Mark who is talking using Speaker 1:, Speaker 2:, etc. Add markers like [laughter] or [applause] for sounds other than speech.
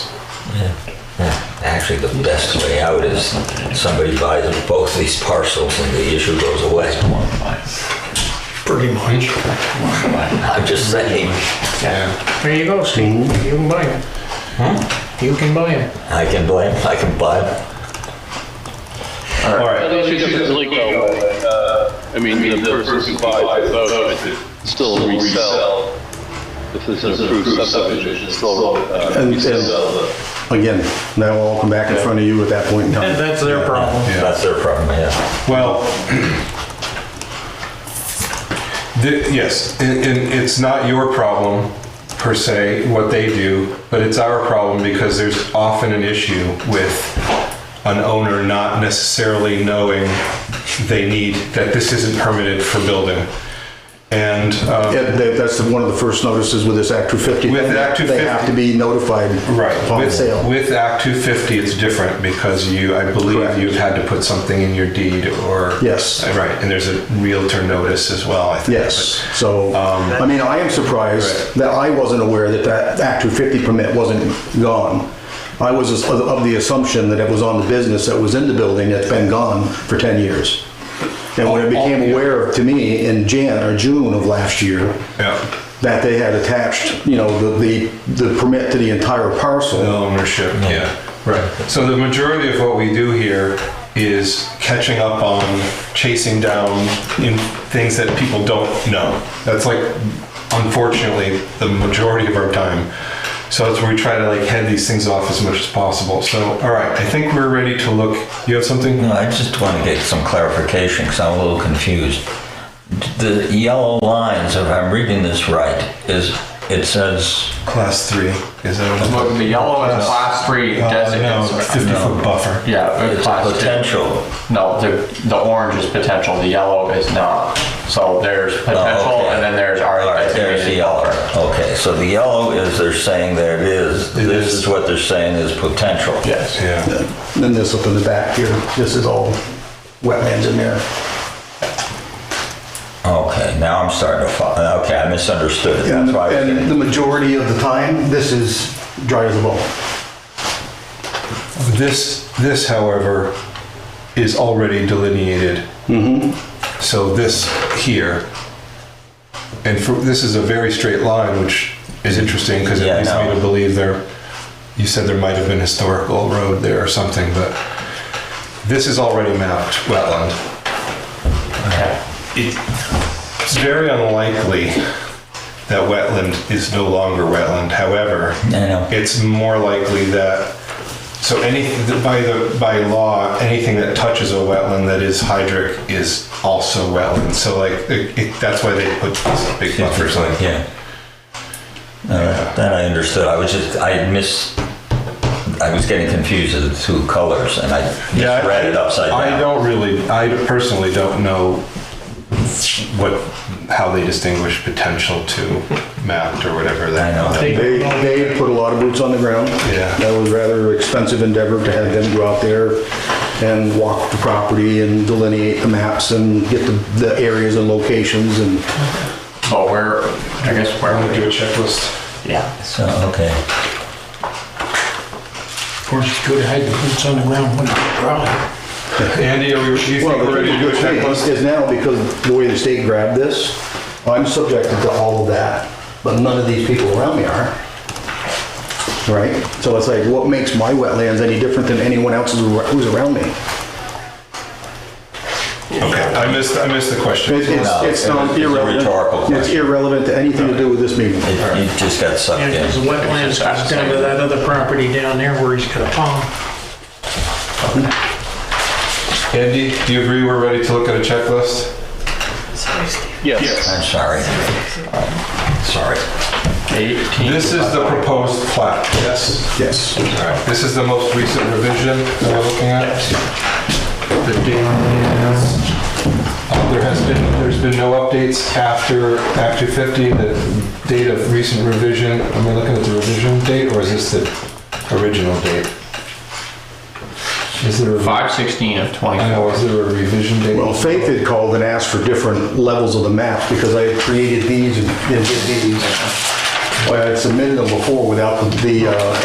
Speaker 1: Actually, the best way out is somebody buys both these parcels and the issue goes away.
Speaker 2: pretty much.
Speaker 1: I'm just saying,
Speaker 3: Yeah.
Speaker 2: There you go, Steve. You can buy them. You can buy them.
Speaker 1: I can blame, I can buy them.
Speaker 4: All right.
Speaker 5: It should definitely go away. I mean, the person who buys it, though, it could still resell. If it's an approved subdivision, it's still, uh,
Speaker 4: And-
Speaker 5: resell the.
Speaker 4: Again, that will all come back in front of you at that point in
Speaker 6: [laughs]
Speaker 4: time.
Speaker 2: That's their problem.
Speaker 1: That's their problem, yeah.
Speaker 6: Well, [clears throat] the- yes, and, and it's not your problem per se, what they do, but it's our problem because there's often an issue with an owner not necessarily knowing they need, that this isn't permitted for building. And, um,
Speaker 4: Yeah, that- that's one of the first notices with this Act 250.
Speaker 6: With Act
Speaker 4: They
Speaker 6: 250.
Speaker 4: have to be notified
Speaker 6: Right.
Speaker 4: upon
Speaker 6: With,
Speaker 4: sale.
Speaker 6: with Act 250, it's different because you, I believe
Speaker 4: Correct.
Speaker 6: you've had to put something in your deed or.
Speaker 4: Yes.
Speaker 6: Right, and there's a Realtor notice as well, I think.
Speaker 4: Yes, so, I mean, I am surprised
Speaker 6: Um, Right.
Speaker 4: that I wasn't aware that that Act 250 permit wasn't gone. I was as- of- of the assumption that it was on the business that was in the building that's been gone for 10 years. And when it became aware to me in Jan or June of last year,
Speaker 6: Yeah.
Speaker 4: that they had attached, you know, the, the the permit to the entire
Speaker 6: The
Speaker 4: parcel.
Speaker 6: Ownership, yeah, right. So the majority of what we do here is catching up on, chasing down in things that people don't know. That's like, unfortunately, the majority of our time. So that's where we try to like head these things off as much as possible. So, all right, I think we're ready to look. You have something?
Speaker 1: No, I just want to get some clarification because I'm a little confused. The yellow lines, if I'm reading this right, is, it says,
Speaker 6: Class three, is that what
Speaker 7: Look, the yellow is a class three designates.
Speaker 6: Fifty foot buffer.
Speaker 7: Yeah, a
Speaker 1: it's a
Speaker 7: class two.
Speaker 1: potential.
Speaker 7: No, the, the orange is potential, the yellow is not. So there's potential
Speaker 1: Oh, okay.
Speaker 7: and then there's
Speaker 1: All
Speaker 7: our
Speaker 1: right, there's the
Speaker 7: designated.
Speaker 1: yellow. Okay, so the yellow is they're saying there it is.
Speaker 6: It
Speaker 1: This
Speaker 6: is.
Speaker 1: is what they're saying is potential.
Speaker 7: Yes.
Speaker 6: Yeah,
Speaker 4: Then this up in the back here, this is all wetlands in there.
Speaker 1: Okay, now I'm starting to follow. Okay, I misunderstood. That's
Speaker 4: And
Speaker 1: why. I was
Speaker 4: and the
Speaker 1: getting-
Speaker 4: majority of the time, this is dry as a bone.
Speaker 6: this, this however, is already delineated.
Speaker 1: Mm-hmm.
Speaker 6: So this here, and for, this is a very straight line, which is interesting because
Speaker 1: Yeah, I
Speaker 6: it leads
Speaker 1: know.
Speaker 6: me to believe there, you said there might have been historical road there or something, but this is already mapped wetland.
Speaker 7: Okay.
Speaker 6: It's very unlikely that wetland is no longer wetland. However,
Speaker 1: I know.
Speaker 6: it's more likely that, so any, by the, by law, anything that touches a wetland that is hydric is also wetland. So like, it- it- that's why they put these big buffers like.
Speaker 1: Yeah. Uh, Then I understood. I was just, I miss, I was getting confused with the two colors and I
Speaker 6: Yeah,
Speaker 1: just read it upside
Speaker 6: I
Speaker 1: down.
Speaker 6: don't really, I personally don't know what, how they distinguish potential to mapped or whatever that.
Speaker 1: I know.
Speaker 6: that-
Speaker 4: They, they put a lot of boots on the ground.
Speaker 6: Yeah.
Speaker 4: That was rather expensive endeavor to have them go out there and walk the property and delineate the maps and get the, the areas and locations and
Speaker 7: But where, I guess where
Speaker 6: I'm gonna
Speaker 7: would
Speaker 6: do a
Speaker 7: you?
Speaker 6: checklist.
Speaker 7: Yeah.
Speaker 1: So, okay.
Speaker 2: Of course, it's good to hide the boots on the ground when it's dry.
Speaker 6: Andy, are we, do you think
Speaker 4: Well,
Speaker 6: we're ready to do a checklist?
Speaker 4: Is now because the way the state grabbed this, I'm subjected to all of that, but none of these people around me are. Right? So it's like, what makes my wetlands any different than anyone else's who- who's around me?
Speaker 6: Okay, I missed, I missed the question.
Speaker 4: It's, it's- it's not
Speaker 1: It's a
Speaker 4: irrelevant.
Speaker 1: rhetorical
Speaker 4: It's
Speaker 1: question.
Speaker 4: irrelevant to anything to do with this meeting.
Speaker 1: It, it just got sucked
Speaker 2: And his
Speaker 1: in.
Speaker 2: wetlands goes down to that other property down there where he's got a pond.
Speaker 6: Andy, do you agree we're ready to look at a checklist?
Speaker 5: Yes.
Speaker 1: I'm sorry. Sorry.
Speaker 7: Eighteen.
Speaker 6: This is the proposed plat, yes?
Speaker 4: Yes.
Speaker 6: All right, this is the most recent revision that we're looking at? The date is- uh, There has been, there's been no updates after Act 250, the date of recent revision, am I looking at the revision date, or is this the original date? Is there, a-
Speaker 7: Five sixteen of
Speaker 6: I
Speaker 7: twenty-four.
Speaker 6: know, is there a revision date?
Speaker 4: Well, Faith had called and asked for different levels of the map because I had created these and and did these. Well, I had submitted them before without the, uh,